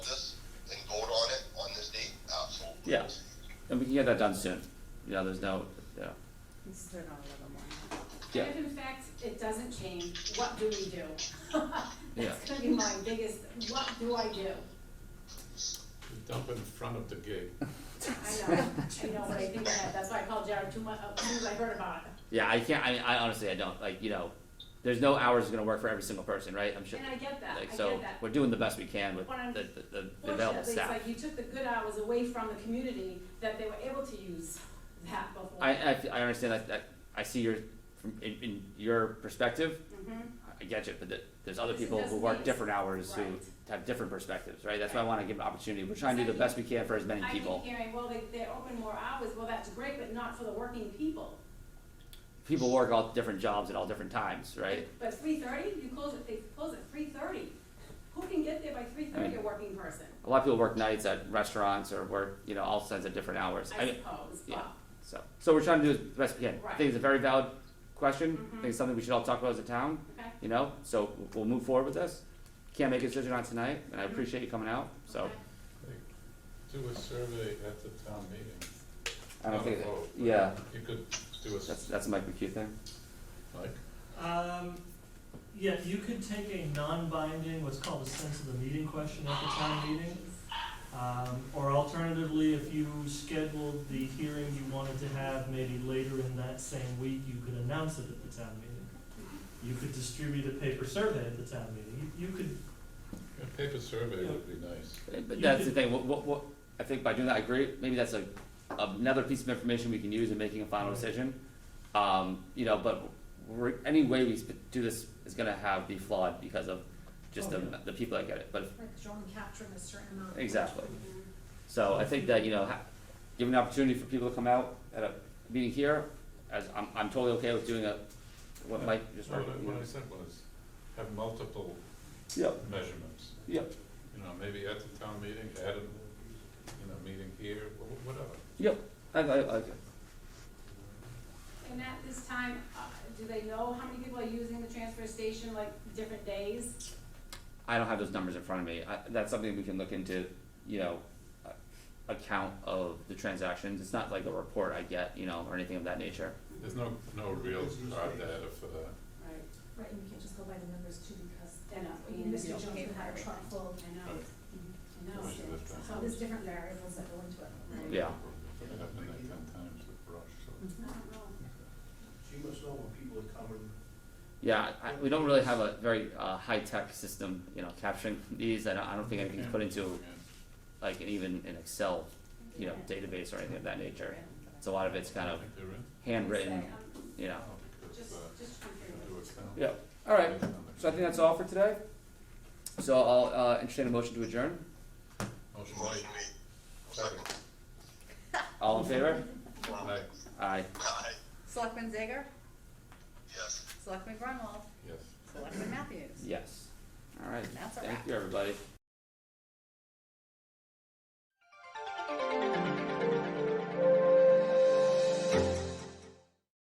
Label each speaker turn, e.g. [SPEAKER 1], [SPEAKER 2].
[SPEAKER 1] Yes.
[SPEAKER 2] And we can get that done soon. Yeah, there's no, yeah.
[SPEAKER 3] Let's turn on a little more.
[SPEAKER 2] Yeah.
[SPEAKER 4] If in fact it doesn't change, what do we do?
[SPEAKER 2] Yeah.
[SPEAKER 4] That's gonna be my biggest, what do I do?
[SPEAKER 5] Dump in front of the gig.
[SPEAKER 4] I know, I know what I think of that, that's why I called Jared too much, as soon as I heard about it.
[SPEAKER 2] Yeah, I can't, I, I honestly, I don't, like, you know, there's no hours that's gonna work for every single person, right? I'm sure.
[SPEAKER 4] And I get that, I
[SPEAKER 2] Like,
[SPEAKER 4] get
[SPEAKER 2] so,
[SPEAKER 4] that.
[SPEAKER 2] we're doing the best we can with
[SPEAKER 4] What I'm-
[SPEAKER 2] the, the- the, the
[SPEAKER 4] Fortunately,
[SPEAKER 2] available
[SPEAKER 4] it's
[SPEAKER 2] staff.
[SPEAKER 4] like you took the good hours away from the community that they were able to use that before.
[SPEAKER 2] I, I, I understand that, that, I see your, from, in, in your perspective,
[SPEAKER 4] Mhm.
[SPEAKER 2] I get you, but th- there's other
[SPEAKER 4] Because it
[SPEAKER 2] people who
[SPEAKER 4] doesn't
[SPEAKER 2] work
[SPEAKER 4] mean-
[SPEAKER 2] different hours who
[SPEAKER 4] Right.
[SPEAKER 2] have different perspectives, right? That's why I
[SPEAKER 4] Right.
[SPEAKER 2] wanna give an opportunity. We're trying to do the best we can for as many
[SPEAKER 4] I keep
[SPEAKER 2] people.
[SPEAKER 4] hearing, well, they, they open more hours, well, that's great, but not for the working people.
[SPEAKER 2] People work all different jobs at all different times, right?
[SPEAKER 4] But three thirty, you close it, they close at three thirty. Who can get there by three thirty, a working person?
[SPEAKER 2] A lot of people work nights at restaurants or work, you know, all kinds of different hours.
[SPEAKER 4] I
[SPEAKER 2] mean,
[SPEAKER 4] suppose,
[SPEAKER 2] yeah.
[SPEAKER 4] but.
[SPEAKER 2] So, so we're trying to do the best we can. I
[SPEAKER 4] Right.
[SPEAKER 2] think it's a very valid question. I think
[SPEAKER 4] Mhm.
[SPEAKER 2] it's something we should all talk about as a town,
[SPEAKER 4] Okay.
[SPEAKER 2] you know? So we'll- we'll move forward with this. Can't make a decision on tonight, and I
[SPEAKER 4] Mhm.
[SPEAKER 2] appreciate you coming out, so.
[SPEAKER 4] okay.
[SPEAKER 5] Do a survey at the town meeting.
[SPEAKER 2] I don't
[SPEAKER 5] Not a
[SPEAKER 2] think, that-
[SPEAKER 5] vote, but
[SPEAKER 2] yeah,
[SPEAKER 5] You could do a,
[SPEAKER 2] that's,
[SPEAKER 5] s-
[SPEAKER 2] that's a Mike McHugh thing.
[SPEAKER 5] like,
[SPEAKER 6] Um, yeah, you could take a non-binding, what's called a sense of the meeting question at the town meeting. Um, or alternatively, if you scheduled the hearing you wanted to have maybe later in that same week, you could announce it at the town meeting. You could distribute a paper survey at the town meeting. You, you could,
[SPEAKER 5] a paper survey would be nice.
[SPEAKER 2] But
[SPEAKER 6] You
[SPEAKER 2] that's the
[SPEAKER 6] could-
[SPEAKER 2] thing, what, what, what, I think by doing that, I agree, maybe that's a, another piece of information we can use in making a final
[SPEAKER 6] Right.
[SPEAKER 2] decision. Um, you know, but we're, any way we sp- do this is gonna have, be flawed because of just
[SPEAKER 6] Oh,
[SPEAKER 2] the,
[SPEAKER 6] yeah.
[SPEAKER 2] the people that get it, but, if-
[SPEAKER 7] Right, because you're only capturing a certain amount.
[SPEAKER 2] exactly. So I think that, you know, ha- giving an opportunity for people to come out at a meeting here, as, I'm, I'm totally okay with doing a, what Mike just.
[SPEAKER 5] What I,
[SPEAKER 2] recommended.
[SPEAKER 5] what I said was, have multiple
[SPEAKER 2] Yep,
[SPEAKER 5] measurements,
[SPEAKER 2] yep,
[SPEAKER 5] you know, maybe at the town meeting, at a, you know, meeting here, wh- whatever.
[SPEAKER 2] yep, I, I, I, okay.
[SPEAKER 4] And at this time, uh, do they know how many people are using the transfer station, like, different days?
[SPEAKER 2] I don't have those numbers in front of me. I, that's something we can look into, you know, a- a count of the transactions. It's not like a report I get, you know, or anything of that nature.
[SPEAKER 5] There's no, no real hard data for that.
[SPEAKER 4] Right.
[SPEAKER 7] Right, and you can't just go by the numbers too, because
[SPEAKER 4] They're not being
[SPEAKER 7] Mr. Jones
[SPEAKER 4] uh, okay
[SPEAKER 7] would
[SPEAKER 4] for
[SPEAKER 7] have a
[SPEAKER 4] everything.
[SPEAKER 7] truck full,
[SPEAKER 4] I know, I know.
[SPEAKER 5] Right. Sure, that's fine.
[SPEAKER 7] so there's different variables that go into it.
[SPEAKER 4] Right.
[SPEAKER 2] Yeah.
[SPEAKER 5] It happened like ten times with brush, so.
[SPEAKER 4] I don't know.
[SPEAKER 1] She must know when people are coming.
[SPEAKER 2] Yeah, I, we don't really have a very uh, high-tech system, you know, capturing these. I don't, I don't think anything's put into like an, even an Excel, you know, database or anything of that nature. So a lot of it's kind
[SPEAKER 5] I
[SPEAKER 2] of
[SPEAKER 5] think they're in.
[SPEAKER 2] handwritten,
[SPEAKER 4] Say, um,
[SPEAKER 2] you know.
[SPEAKER 5] Oh, because,
[SPEAKER 4] Just,
[SPEAKER 5] uh,
[SPEAKER 4] just
[SPEAKER 5] you
[SPEAKER 4] confirm.
[SPEAKER 5] do it now.
[SPEAKER 2] Yeah. All right. So I think that's all for today. So I'll uh, entertain a motion to adjourn.
[SPEAKER 5] Motion made. Second.
[SPEAKER 2] All in favor?
[SPEAKER 5] Aye.
[SPEAKER 2] Aye.
[SPEAKER 3] Selectman Zager?
[SPEAKER 8] Yes.
[SPEAKER 3] Selectman Grunwald?
[SPEAKER 5] Yes.
[SPEAKER 3] Selectman Matthews?
[SPEAKER 2] Yes. All right.
[SPEAKER 3] That's a
[SPEAKER 2] Thank
[SPEAKER 3] wrap.
[SPEAKER 2] you, everybody.